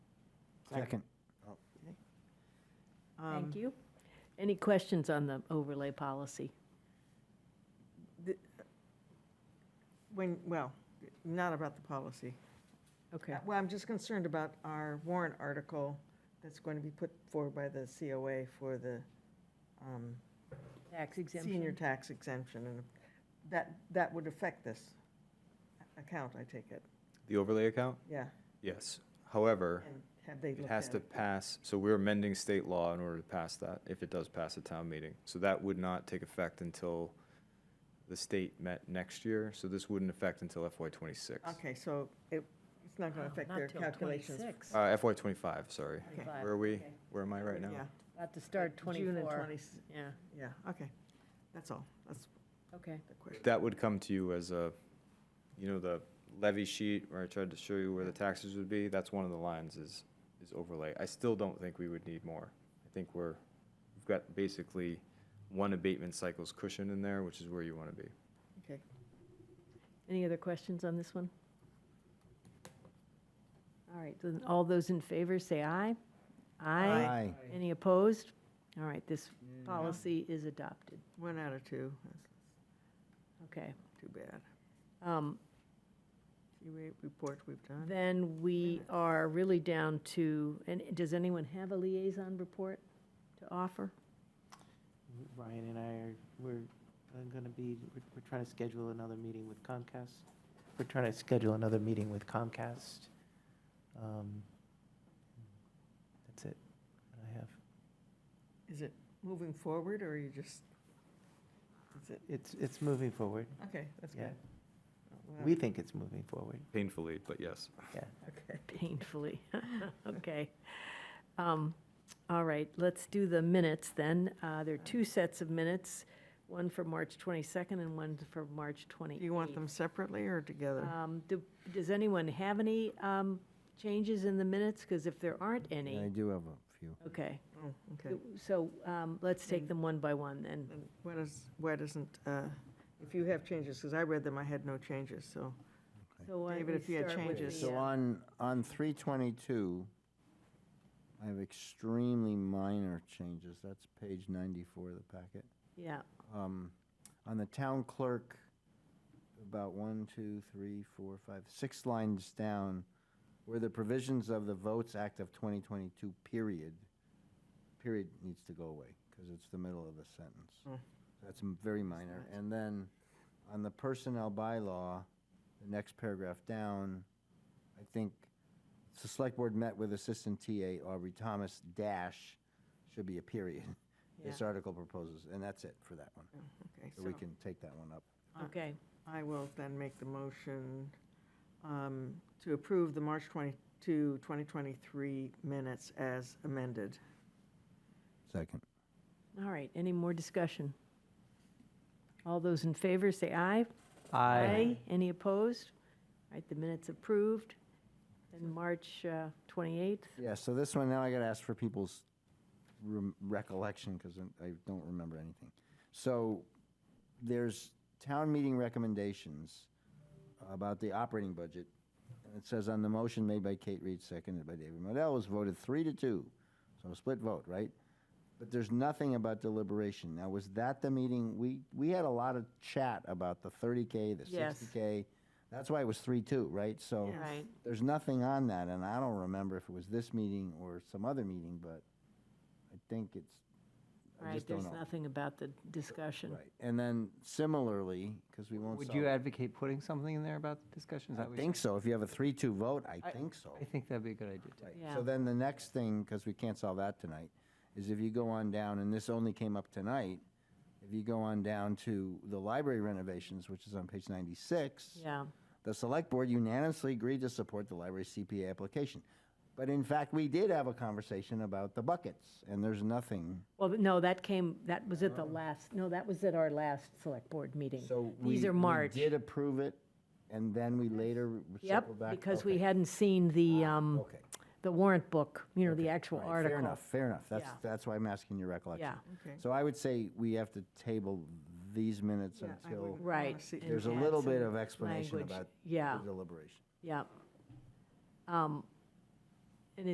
Second. Um, Thank you. Any questions on the overlay policy? When, well, not about the policy. Okay, Uh, Well, I'm just concerned about our warrant article that's going to be put forward by the COA for the um, tax senior exemption. tax exemption, and that, that would affect this account, I take it, The overlay account? yeah. Yes. However, And have they it looked has at to it? pass, so we're amending state law in order to pass that, if it does pass a town meeting. So that would not take effect until the state met next year, so this wouldn't affect until FY twenty-six. Okay, so it, it's not Oh, going to affect their calculations. Uh, FY twenty-five, sorry. Okay. Where are we? Where am I right now? Yeah, About to start June and 24. 20 Yeah, yeah, okay, that's all, that's okay. the question. That would come to you as a, you know, the levy sheet where I tried to show you where the taxes would be, that's one of the lines is, is overlay. I still don't think we would need more. I think we're, we've got basically one abatement cycle's cushion in there, which is where you want to be. Okay, Any other questions on this one? All right, then all those in favor, say aye. Aye. Any opposed? All right, this policy is adopted. one out of two, that's Okay. too bad. Um, COA report we've done. Then we are really down to, and does anyone have a liaison report to offer? Ryan and I are, we're going to be, we're- we're trying to schedule another meeting with Comcast. We're trying to schedule another meeting with Comcast. Um, That's it, that I have. Is it moving forward, or are you just, is it, It's, it's moving forward, okay, that's yeah. good. Well, We think it's moving forward, Painfully, but yes. yeah. Okay. Painfully. Okay. Um, All right, let's do the minutes then. Uh, There are two sets of minutes, one for March 22nd and one for March 28th. Do you want them separately or together? Um, do- Does anyone have any um, changes in the minutes? Because if there aren't I any, do have a few. okay. Oh, okay. So um, let's take them one by one then. Then why does, why doesn't, uh, if you have changes, because I read them, I had no changes, so, So why don't David, we if you had start with changes. the, So uh, on, on 322, I have extremely minor changes. That's page 94 of the packet. Yeah, Um, On the town clerk, about one, two, three, four, five, six lines down, where the provisions of the Votes Act of 2022, period, period needs to go away, because it's the middle of the Mm. sentence. That's m- very minor. And then, on the personnel bylaw, the next paragraph down, I think, the select board met with assistant TA Aubrey Thomas dash, should be a period. This Yeah. article proposes, and that's it for that one. okay. So we can take that one up. okay. I will then make the motion um, to approve the March 22, 2023 minutes as amended. Second. All right, any more discussion? All those in favor, say aye. Any opposed? All right, the minutes approved. And March uh, 28th, Yeah, so this one, now I gotta ask for people's rem- recollection, because I don't remember anything. So there's town meeting recommendations about the operating budget. And it says on the motion made by Kate Reed, seconded by David Modell, was voted three to two. So a split vote, right? But there's nothing about deliberation. Now, was that the meeting, we, we had a lot of chat about the 30K, the Yes. 60K. That's why it was three, two, right? So. Yes. Right. There's nothing on that, and I don't remember if it was this meeting or some other meeting, but I think it's, I right, just don't there's know. nothing about the discussion. Right, and then similarly, because we won't. Would solve- you advocate putting something in there about the discussion? Is I that what you- think so. If you have a three-two vote, I think so. I think that'd be a good idea, too. Right. Yeah. So then the next thing, because we can't solve that tonight, is if you go on down, and this only came up tonight, if you go on down to the library renovations, which is on page ninety-six. Yeah, The select board unanimously agreed to support the library CPA application. But in fact, we did have a conversation about the buckets, and there's nothing. well, but no, that came, that was at the last, no, that was at our last select board meeting. Uh-huh. So we- These are March. We did approve it, and then we later Yep, circled back. because we okay, Ah, hadn't seen the, um, Okay. the warrant book, you know, the All actual right, article. Fair enough, fair enough. That's, Yeah. that's why I'm asking your recollection. Yeah, Okay. So I would say we have to table these minutes Yeah, I until would- right. see- and there's a add little some bit of explanation language. about the Yeah. deliberation. Yeah. Um,